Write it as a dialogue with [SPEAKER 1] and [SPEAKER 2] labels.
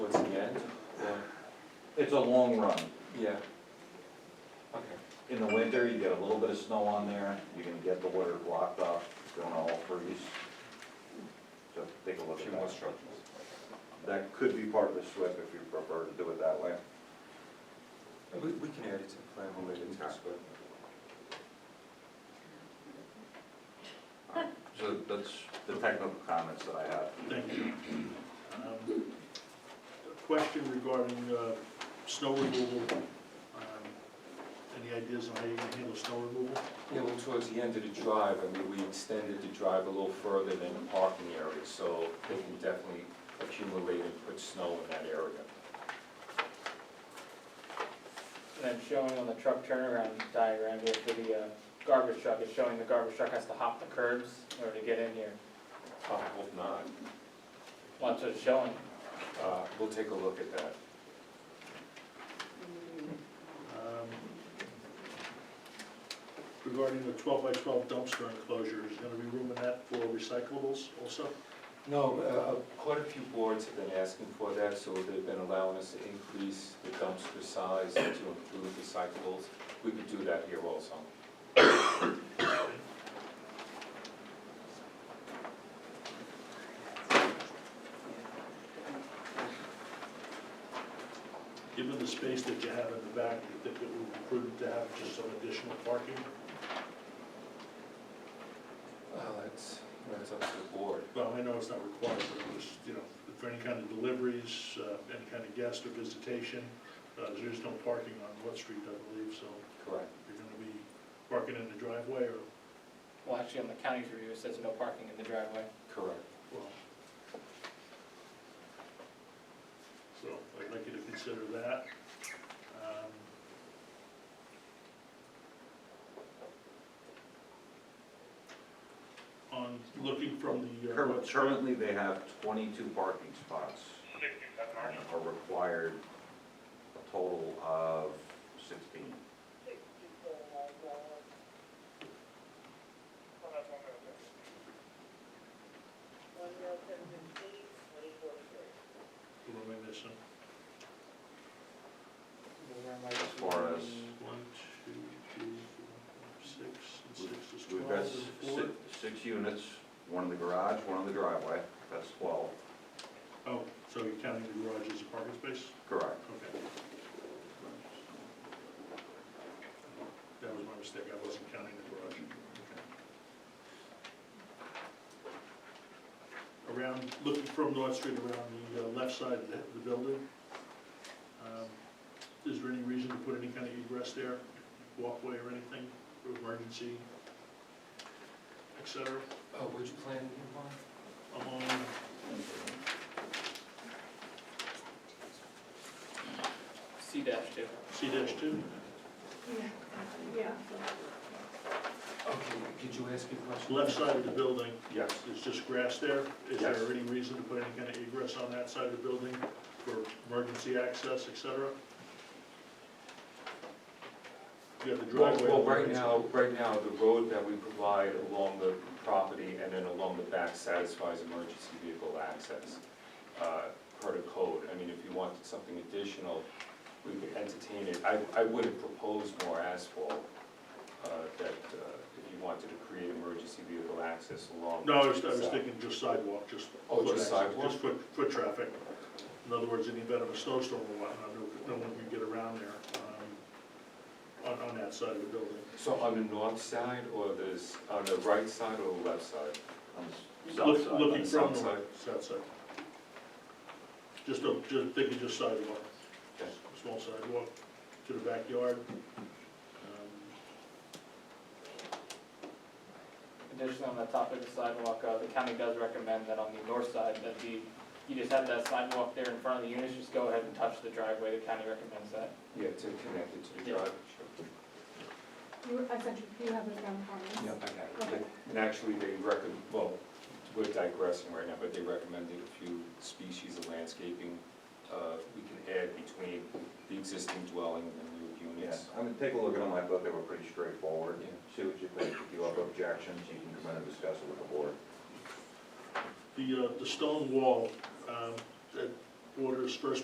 [SPEAKER 1] it's a long run.
[SPEAKER 2] Yeah. Okay.
[SPEAKER 1] In the winter, you get a little bit of snow on there, you're gonna get the water blocked off, it's gonna all freeze. So take a look
[SPEAKER 2] Few
[SPEAKER 1] at
[SPEAKER 2] more
[SPEAKER 1] that.
[SPEAKER 2] structures.
[SPEAKER 1] That could be part of the SWIP if you prefer to do it that way.
[SPEAKER 2] We, we can add it to the plan, we'll make it tax, but.
[SPEAKER 1] So that's the technical comments that I have.
[SPEAKER 3] Thank you. Um, a Question regarding uh, snow removal. Um, Any ideas on how you're gonna handle snow removal?
[SPEAKER 2] Yeah, well, towards the end of the drive, I mean, we extended the drive a little further than the parking area, so they can definitely accumulate and put snow in that area.
[SPEAKER 4] And it's showing on the truck turnaround diagram here for the uh, garbage truck, it's showing the garbage truck has to hop the curbs in order to get in here.
[SPEAKER 2] I hope not.
[SPEAKER 4] Well, that's what it's showing.
[SPEAKER 2] Uh, We'll take a look at that.
[SPEAKER 3] Um, Regarding the twelve by twelve dumpster enclosure, is there gonna be room in that for recyclables also?
[SPEAKER 2] No, uh, quite a few boards have been asking for that, so they've been allowing us to increase the dumpster size to include recyclables. We could do that here also.
[SPEAKER 3] Given the space that you have in the back, do you think it would be prudent to have just some additional parking?
[SPEAKER 2] Well, that's, that's up to the board.
[SPEAKER 3] Well, I know it's not required, but it was, you know, for any kind of deliveries, uh, any kind of guest or visitation, uh, there's no parking on Wood Street, I believe, so
[SPEAKER 2] Correct.
[SPEAKER 3] you're gonna be parking in the driveway or,
[SPEAKER 4] Well, actually, on the county's review, it says no parking in the driveway.
[SPEAKER 2] Correct.
[SPEAKER 3] well. So I'd like you to consider that. Um, On looking from the. uh,
[SPEAKER 1] Cur- Currently, they have twenty-two parking spots. and Are required a total of sixteen.
[SPEAKER 3] What am I missing?
[SPEAKER 1] As far as-
[SPEAKER 3] One, two, three, four, five, six, and six is
[SPEAKER 1] We've
[SPEAKER 3] twelve,
[SPEAKER 1] got
[SPEAKER 3] and
[SPEAKER 1] s-
[SPEAKER 3] four.
[SPEAKER 1] si- six units, one in the garage, one in the driveway, that's twelve.
[SPEAKER 3] Oh, so you're counting the garage as a parking space?
[SPEAKER 1] Correct.
[SPEAKER 3] Okay. That was my mistake, I wasn't counting the garage. Okay. Around, looking from North Street around the uh, left side of the the building, um, is there any reason to put any kind of egress there, walkway or anything, for emergency, et cetera?
[SPEAKER 2] Oh, would you plan, Yvonne?
[SPEAKER 3] along
[SPEAKER 4] C dash two.
[SPEAKER 3] C dash two?
[SPEAKER 5] Yeah.
[SPEAKER 2] Okay, could you ask a question?
[SPEAKER 3] Left side of the building,
[SPEAKER 2] Yes.
[SPEAKER 3] there's just grass there. Is there
[SPEAKER 2] Yes.
[SPEAKER 3] any reason to put any kind of egress on that side of the building for emergency access, et cetera? You have the
[SPEAKER 2] Well,
[SPEAKER 3] driveway.
[SPEAKER 2] well, right now, right now, the road that we provide along the property and then along the back satisfies emergency vehicle access uh, per the code. I mean, if you wanted something additional, we could entertain it. I, I wouldn't propose more asphalt uh, that uh, if you wanted to create emergency vehicle access along.
[SPEAKER 3] No, I was, I was thinking just sidewalk, just.
[SPEAKER 2] Oh,
[SPEAKER 3] foot
[SPEAKER 2] just
[SPEAKER 3] access,
[SPEAKER 2] sidewalk?
[SPEAKER 3] Just foot, foot traffic. In other words, in the event of a snowstorm or whatnot, no, no one can get around there, um, on, on that side of the building.
[SPEAKER 2] So on the north side or the, s- on the right side or the left side?
[SPEAKER 1] On the
[SPEAKER 3] Look-
[SPEAKER 1] south side.
[SPEAKER 3] Looking
[SPEAKER 2] the south
[SPEAKER 3] from the
[SPEAKER 2] side.
[SPEAKER 3] south side. Just, a- just thinking just sidewalk,
[SPEAKER 2] Okay.
[SPEAKER 3] small sidewalk to the backyard. Um,
[SPEAKER 4] Additionally, on the top of the sidewalk, uh, the county does recommend that on the north side, that the, you just have that sidewalk there in front of the units, just go ahead and touch the driveway, the county recommends that.
[SPEAKER 2] Yeah, to connect it to the
[SPEAKER 4] Yeah.
[SPEAKER 2] drive.
[SPEAKER 5] You, essentially, you have it down for me.
[SPEAKER 2] Yeah, I got it. And actually, they recommend, well, we're digressing right now, but they recommended a few species of landscaping uh, we can add between the existing dwelling and new
[SPEAKER 1] Yeah,
[SPEAKER 2] units.
[SPEAKER 1] I mean, take a look at them, I thought they were pretty straightforward.
[SPEAKER 2] Yeah.
[SPEAKER 1] See what you think, if you have objections, you can come in and discuss it with the board.
[SPEAKER 3] The, uh, the stone wall, um, that borders First